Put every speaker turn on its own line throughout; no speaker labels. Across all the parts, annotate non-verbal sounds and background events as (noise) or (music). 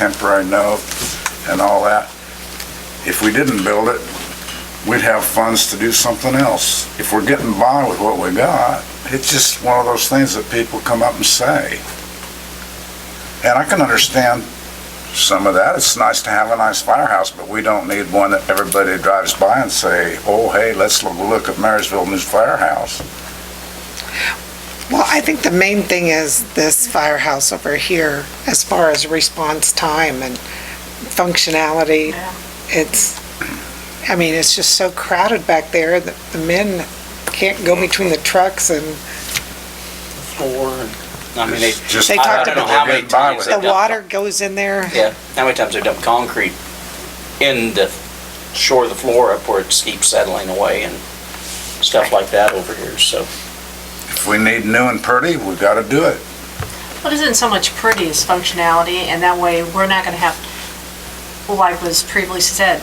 temporary note and all that. If we didn't build it, we'd have funds to do something else. If we're getting by with what we got, it's just one of those things that people come up and say. And I can understand some of that. It's nice to have a nice firehouse, but we don't need one that everybody drives by and say, oh, hey, let's lo- look at Marysville News Firehouse.
Well, I think the main thing is this firehouse over here, as far as response time and functionality. It's, I mean, it's just so crowded back there that the men can't go between the trucks and
four. and- I mean, they,
It's just-
They talked
I don't know
about-
how many times
the
they-
water goes in there.
yeah, how many times they've dumped concrete in the shore of the floor up where it keeps settling away and stuff like that over here, so.
If we need new and pretty, we gotta do it.
Well, it isn't so much pretty as functionality, and that way, we're not gonna have, like was previously said,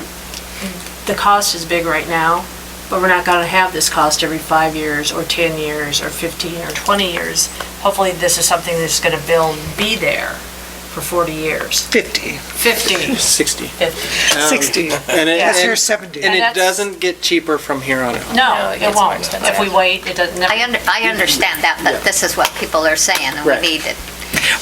the cost is big right now, but we're not gonna have this cost every five years, or 10 years, or 15, or 20 years. Hopefully, this is something that's gonna build, be there for 40 years,
50,
(laughs)
50,
60.
50.
60,
And it,
that's your
and,
70.
and
And
it
that's-
doesn't get cheaper from here on out.
No,
gets
it
more
won't.
expensive.
If we wait, it doesn't,
I
never-
under, I understand that, but this is what people are saying, and
Right.
we need it.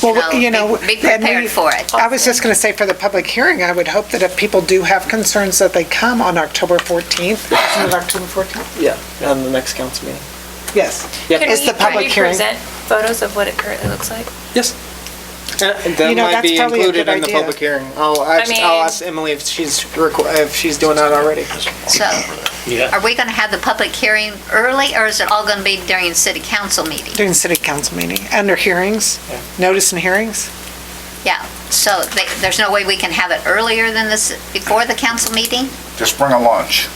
Well,
know,
you know. Oh.
be- be
and we-
prepared for it.
I was just going to say, for the public hearing, I would hope that if people do have concerns, that they come on October 14th. Isn't it October 14th?
Yeah, on the next council meeting.
Yes.
Yep.
It's the public hearing.
Can we present photos of what it currently looks like?
Yes. And
You
That
know,
might
that's
be
probably a
included
good
in the
idea.
public hearing. I'll, ask- I'll
mean-
ask Emily if she's, requ- if she's doing that already.
So, are we gonna have the public hearing early, or is it all gonna be during city council meeting?
During city council meeting, under hearings, notice and hearings?
Yeah, so they- there's no way we can have it earlier than this, before the council meeting?
Just bring a lunch.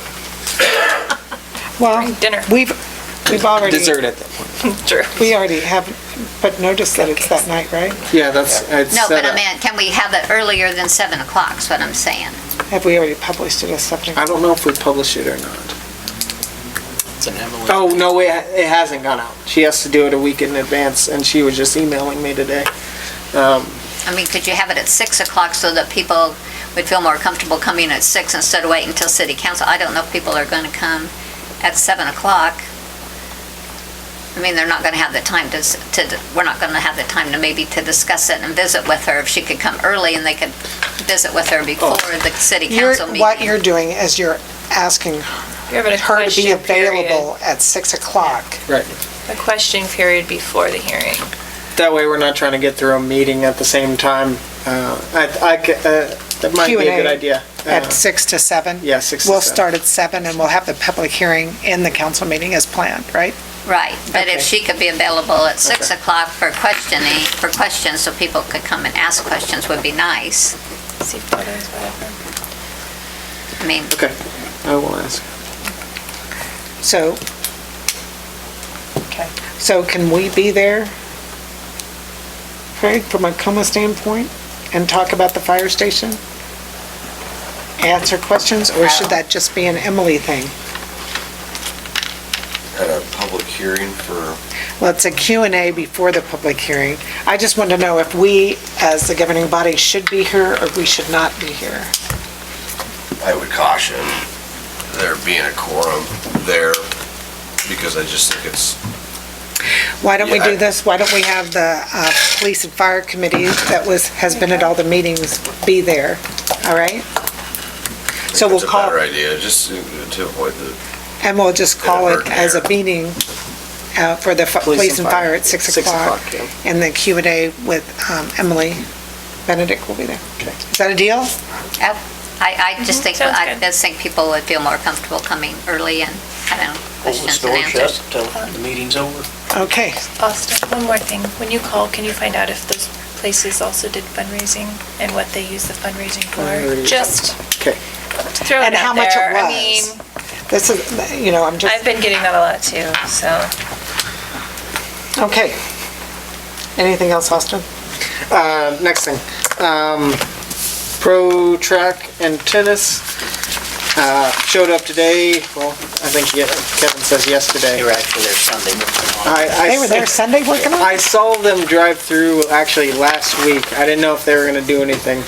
Well,
During dinner.
we've, we've already,
Dessert at that point.
True.
we already have, but notice that it's that night, right?
Yeah, that's, it's
No,
set
but I
up.
meant, can we have it earlier than 7 o'clock, is what I'm saying?
Have we already published it as something?
I don't know if we publish it or not.
It's an Emily.
Oh, no, it, it hasn't gone out. She has to do it a week in advance, and she was just emailing me today. Um,
I mean, could you have it at 6 o'clock so that people would feel more comfortable coming at 6 instead of waiting until city council? I don't know if people are going to come at 7 o'clock. I mean, they're not going to have the time to, s- to, we're not going to have the time to maybe to discuss it and visit with her. If she could come early and they could visit with her before the city
Oh. You're,
council meeting.
what you're doing is you're asking
You have
her to
a
be
question period,
available at 6 o'clock.
Right.
a question period before the hearing.
That way, we're not trying to get through a meeting at the same time. Uh, I, I, c- uh, that might be a good
Q&A
idea. Uh,
At 6 to 7?
Yeah, 6 to
We'll
7.
start at 7 and we'll have the public hearing in the council meeting as planned, right?
Right, but if
Okay.
she could be available at 6
Okay.
o'clock for questioning, for questions, so people could come and ask questions would be nice.
See photos, whatever.
I mean,
Okay, I will ask.
So,
Okay.
so can we be there, Craig, from a coma standpoint, and talk about the fire station? Answer questions, or should that just be an Emily thing?
at a public hearing for,
Well, it's a Q and A before the public hearing. I just want to know if we, as the governing body, should be here or we should not be here.
I would caution there being a quorum there, because I just think it's,
Why don't we
Yeah, I-
do this? Why don't we have the uh, Police and Fire Committee that was, has been at all the meetings be there, all right?
I
So
think
we'll
it's a
call-
better idea, just to to avoid the
And we'll just call it as a meeting uh, for the fi- police and fire at 6 o'clock.
yeah.
And the Q and A with um, Emily Benedict will be there. Is that a deal?
I, I just think,
Mm-hmm. sounds
I
good.
just think people would feel more comfortable coming early and having
Hold this
questions and
door
answers.
shut till the meeting's over.
Okay.
Austin, one more thing. When you call, can you find out if those places also did fundraising and what they use the fundraising for?
Fundraising.
Just
Okay.
throw it
And how
out
much it
there. I
was.
mean,
This is, you know, I'm
I've
just,
been getting that a lot too, so.
okay. Anything else, Austin?
Uh, next thing, um, pro track and tennis, uh, showed up today, well, I think ye- Kevin says yesterday.
They were actually there Sunday. morning.
I, I.
They were there Sunday working on it?
I saw them drive through actually last week. I didn't know if they were gonna do anything.